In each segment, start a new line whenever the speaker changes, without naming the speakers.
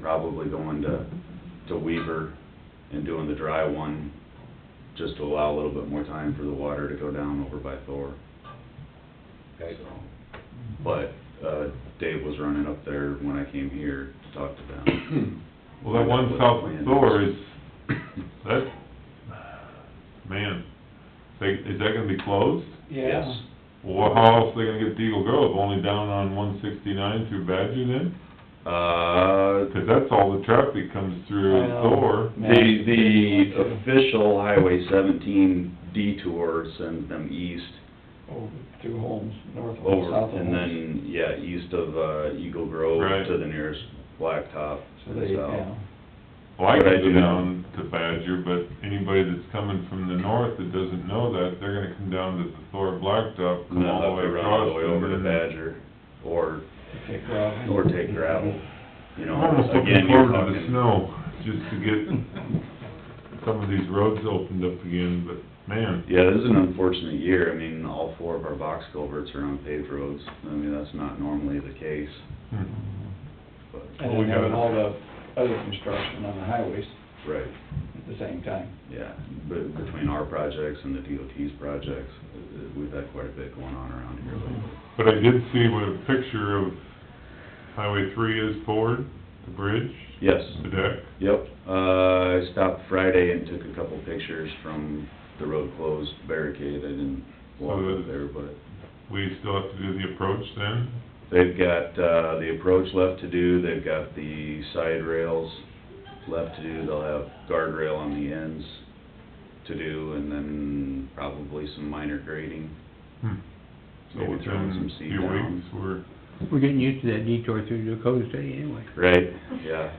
probably going to, to Weaver and doing the dry one, just to allow a little bit more time for the water to go down over by Thor.
Okay.
So, But, uh, Dave was running up there when I came here to talk to them.
Well, that one south of Thor is, that's, man, they, is that gonna be closed?
Yes.
Yeah,
Well, how else they gonna get to Eagle Grove, only down on one sixty-nine through Badger then?
Uh,
Cause that's all the traffic comes
I
through
know.
Thor.
The, the official Highway seventeen detour sends them east
over through Holmes, north of,
over,
south of
and
Holmes.
then, yeah, east of, uh, Eagle Grove
Right.
to the nearest blacktop.
So they,
south.
yeah,
Well, I
But I
can go
do know-
down to Badger, but anybody that's coming from the north that doesn't know that, they're gonna come down to the Thor
And
Blacktop, come
then
all the
up
way
to run all
across.
the way over to
and then-
Badger, or,
okay, gravel.
or take gravel, you know,
I'm almost
again,
looking
you're
forward to the
talking.
snow, just to get some of these roads opened up again, but man,
Yeah, this is an unfortunate year, I mean, all four of our box culverts are on paved roads, I mean, that's not normally the case,
hmm,
but,
And
Well, we
then having
got-
all the other construction on the highways
right,
at the same time.
yeah. But between our projects and the DOT's projects, uh, we've had quite a bit going on around here lately.
Mm-hmm.
but I did see what a picture of Highway three is forward, the bridge,
Yes,
the deck.
yep, uh, I stopped Friday and took a couple pictures from the road closed barricade, I didn't walk
So
up
the-
there, but.
We still have to do the approach then,
They've got, uh, the approach left to do, they've got the side rails left to do, they'll have guardrail on the ends to do, and then probably some minor grading,
hmm, so
maybe throwing
within
some
a
seed
few
down.
weeks, we're
We're getting used to that detour through Dakota City anyway,
Right, yeah.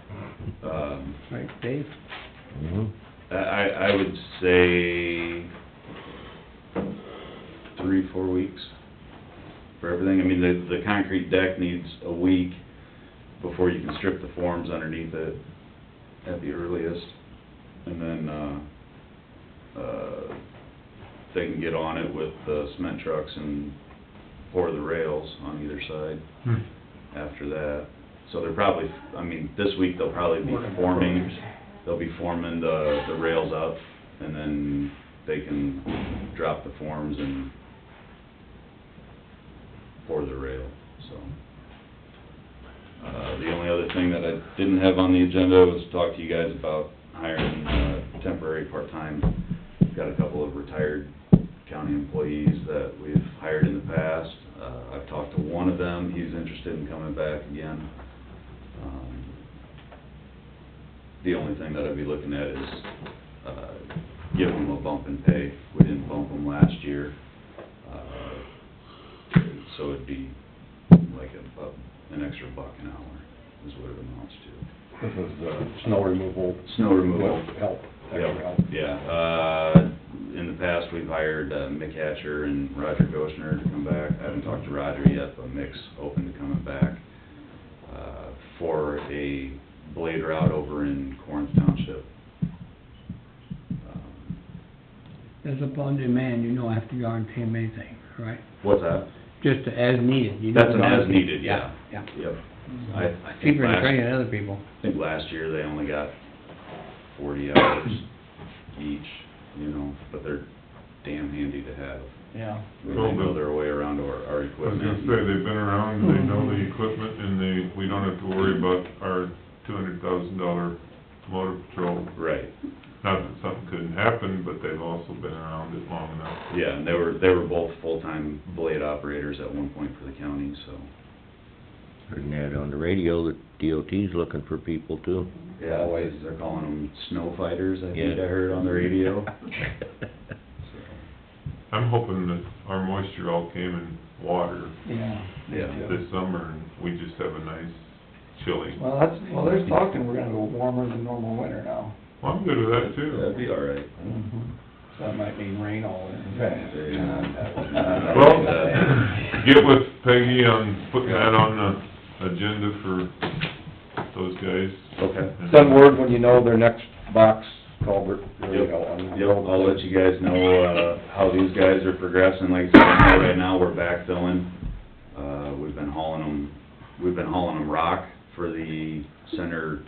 Um,
right, Dave?
I, I I would say three, four weeks for everything. I mean, the, the concrete deck needs a week before you can strip the forms underneath it at the earliest. And then, uh, uh, they can get on it with the cement trucks and pour the rails on either side
Hmm.
after that. So they're probably, I mean, this week they'll probably be
Working on
forming,
roads.
they'll be forming the, the rails up, and then they can drop the forms and pour the rail, so. Uh, the only other thing that I didn't have on the agenda was to talk to you guys about hiring, uh, temporary part-time. Got a couple of retired county employees that we've hired in the past. Uh, I've talked to one of them, he's interested in coming back again. Um, The only thing that I'd be looking at is, uh, give him a bump in pay. We didn't bump him last year. Uh, So it'd be like a, a- an extra buck an hour is what it amounts to.
This is, uh, snow removal.
Snow removal.
With Help, extra
Yeah,
help.
yeah, uh, in the past, we've hired uh, Mick Hatcher and Roger Goshner to come back. I haven't talked to Roger yet, but Mick's open to coming back, uh, for a blade route over in Corinth Township. Um,
That's upon demand, you don't have to guarantee him anything, right?
What's that?
Just as needed, you
That's an
don't guarantee.
as needed, yeah.
Yeah,
Yep. I, I think
cheaper than
last,
training other people.
I think last year they only got forty hours each, you know, but they're damn handy to have.
Yeah.
We know their way around our, our
I was
equipment.
gonna say, they've been around, they know
Hmm.
the equipment, and they, we don't have to worry about our two hundred thousand dollar motor patrol.
Right,
Not that something couldn't happen, but they've also been around it long enough.
yeah, and they were, they were both full-time blade operators at one point for the county, so.
Heard an ad on the radio that DOT's looking for people too.
Yeah, always, they're calling them snow fighters, I think
Yeah.
I heard on the radio.
I'm hoping that our moisture all came in water
Yeah.
Yeah.
this summer, and we just have a nice chilly.
Well, that's, well, there's talk that we're gonna go warmer than normal winter now.
Well, I'm good with that
That'd
too.
be all right.
So that might mean rain all in.
Yeah.
Well, get with Peggy on putting that on the agenda for those guys.
Okay.
Send word when you know their next box culvert, there you go. on the
Yep, I'll let you guys know, uh, how these guys are progressing, like I said, right now, we're backfilling. Uh, we've been hauling them, we've been hauling them rock for the center